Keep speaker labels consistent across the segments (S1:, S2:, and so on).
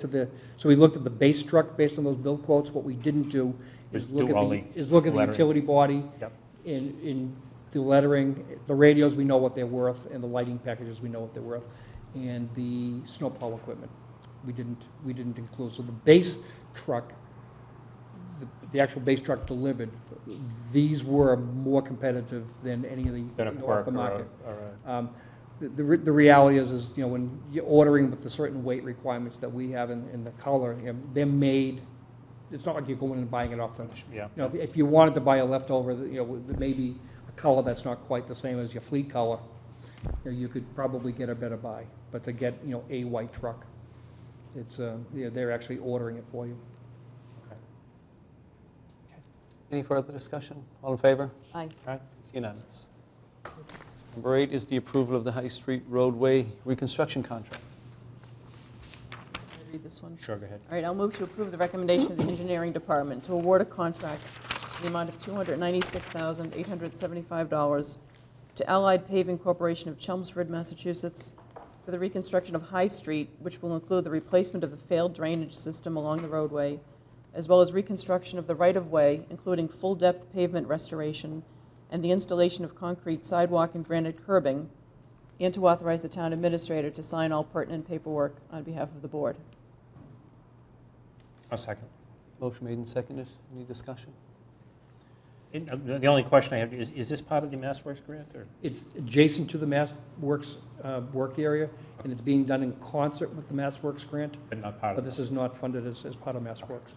S1: to the, so we looked at the base truck based on those bill quotes. What we didn't do is
S2: Is do
S1: look at the,
S2: only
S1: is look at the
S2: lettering.
S1: utility body
S2: Yep.
S1: in, in the lettering, the radios, we know what they're worth, and the lighting packages, we know what they're worth, and the snowplow equipment, we didn't, we didn't include. So the base truck, the, the actual base truck delivered, these were more competitive than any of the,
S2: Than a
S1: you know, off
S2: Quirk
S1: the
S2: or
S1: market.
S2: a- or a-
S1: Um, The, the re- the reality is, is, you know, when you're ordering with the certain weight requirements that we have in, in the color, you know, they're made, it's not like you're going and buying it off the, you
S2: yeah.
S1: know, if- if you wanted to buy a leftover, that, you know, with maybe a color that's not quite the same as your fleet color, you know, you could probably get a better buy, but to get, you know, a white truck, it's, uh, you know, they're actually ordering it for you.
S3: Any further discussion? All in favor?
S4: Aye.
S2: All right.
S3: It's unanimous. Number eight is the approval of the High Street Roadway Reconstruction Contract.
S4: Can I Read this one.
S2: Sure, go ahead.
S4: All right, I'll move to approve the recommendation of the engineering department to award a contract in the amount of $296,875 to Allied Paving Corporation of Chelmsford, Massachusetts, for the reconstruction of High Street, which will include the replacement of the failed drainage system along the roadway, as well as reconstruction of the right-of-way, including full-depth pavement restoration and the installation of concrete sidewalk and granite curbing, and to authorize the town administrator to sign all pertinent paperwork on behalf of the board.
S2: I'll second.
S3: Motion made and seconded. Any discussion?
S2: And, uh, The only question I have is, is this part of the Mass Works grant or?
S1: It's adjacent to the Mass Works, uh, work area, and it's being done in concert with the Mass Works grant,
S2: But not part
S1: but
S2: of
S1: this
S2: it?
S1: is not funded as, as part of Mass Works.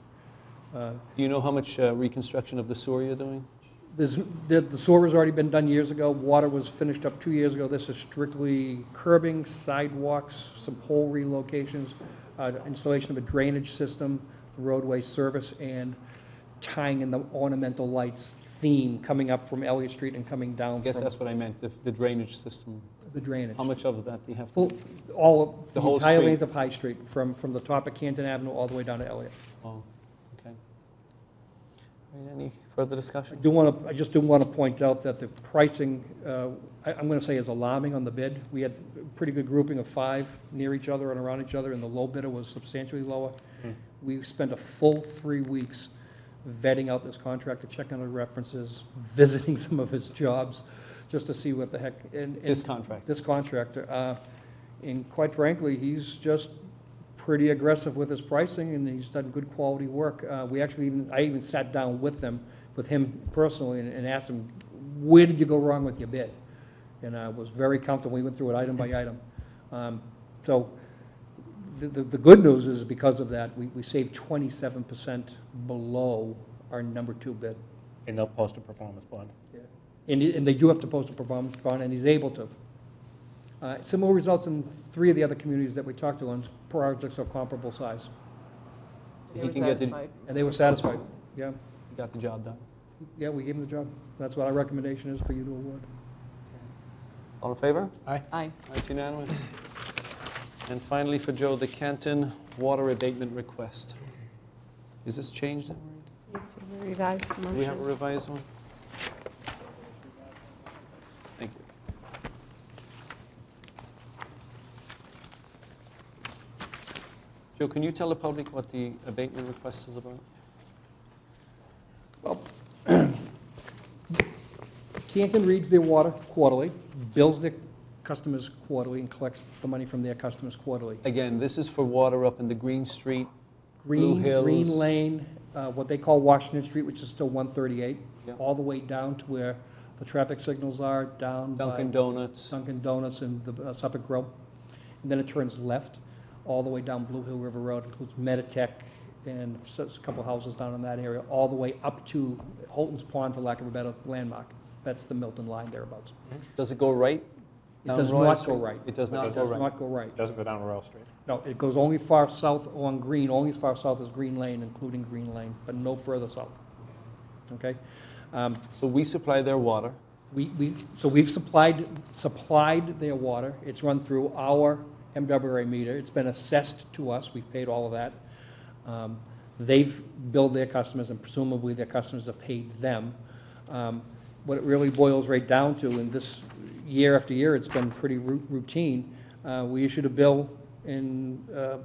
S1: Uh,
S3: Do you know how much uh, reconstruction of the sewer you're doing?
S1: There's, the the sewer has already been done years ago, water was finished up two years ago, this is strictly curbing, sidewalks, some pole relocations, uh, installation of a drainage system, roadway service, and tying in the ornamental lights theme coming up from Elliott Street and coming
S3: I
S1: down
S3: guess
S1: from
S3: that's what I meant, the- the drainage system.
S1: the drainage.
S3: How much of that do you have? to-
S1: Full- All, of-
S3: The
S1: the
S3: whole
S1: entire
S3: street.
S1: length of High Street, from, from the top of Canton Avenue all the way down to Elliott.
S3: Oh, okay. All right, Any further
S1: I
S3: discussion?
S1: do want to, I just do want to point out that the pricing, uh, I- I'm going to say is alarming on the bid. We had a pretty good grouping of five near each other and around each other, and the low bidder was substantially lower.
S2: Hmm.
S1: We spent a full three weeks vetting out this contractor, checking the references, visiting some of his jobs, just to see what the heck. and- and-
S3: This contract.
S1: This contractor. uh, And quite frankly, he's just pretty aggressive with his pricing, and he's done good quality work. Uh, We actually even, I even sat down with them, with him personally, and- and asked him, where did you go wrong with your bid? And I was very comfortable, we went through it item by item. Um, So the, the the good news is because of that, we we saved 27% below our number two bid.
S2: And they'll post a performance bond.
S1: And, he- and they do have to post a performance bond, and he's able to. Uh, Similar results in three of the other communities that we talked to on projects of comparable size,
S4: They
S3: He
S4: were
S3: can get the-
S4: satisfied.
S1: and they were satisfied. Yeah,
S3: You Got the job done.
S1: yeah, we gave them the job. That's what our recommendation is for you to award.
S3: All in favor?
S4: Aye.
S3: That's unanimous. And finally, for Joe, the Canton Water Abatement Request. Is this changed? Maureen?
S5: Revised
S3: Do we have a
S5: motion.
S3: revised one? Thank you. Joe, can you tell the public what the abatement request is about?
S1: Canton reads their water quarterly, bills their customers quarterly, and collects the money from their customers quarterly.
S3: Again, this is for water up in the Green Street.
S1: Green,
S3: Blue
S1: Green
S3: Hills.
S1: Lane, uh, what they call Washington Street, which is still 138,
S3: Yep.
S1: all the way down to where the traffic signals are, down by...
S3: Dunkin' Donuts.
S1: Dunkin' Donuts and the uh, Suffolk Grill. And then it turns left all the way down Blue Hill River Road, includes Meditech and s- a couple houses down in that area, all the way up to Holton's Pond, for lack of a better landmark. That's the Milton line thereabouts.
S3: Does it go right?
S1: It
S3: down
S1: does
S3: Royal
S1: not
S3: Street?
S1: go right.
S3: It does
S2: It
S3: not
S1: It
S3: go
S1: does
S3: right.
S1: not go right.
S2: Doesn't go down Royal Street.
S1: No, it goes only far south on Green, only as far south as Green Lane, including Green Lane, but no further south. Okay? Um,
S3: So we supply their water.
S1: We, we, so we've supplied, supplied their water. It's run through our MWA meter. It's been assessed to us. We've paid all of that. Um, They've billed their customers, and presumably their customers have paid them. Um, What it really boils right down to, and this, year after year, it's been pretty ru- routine, uh, we issued a bill in uh,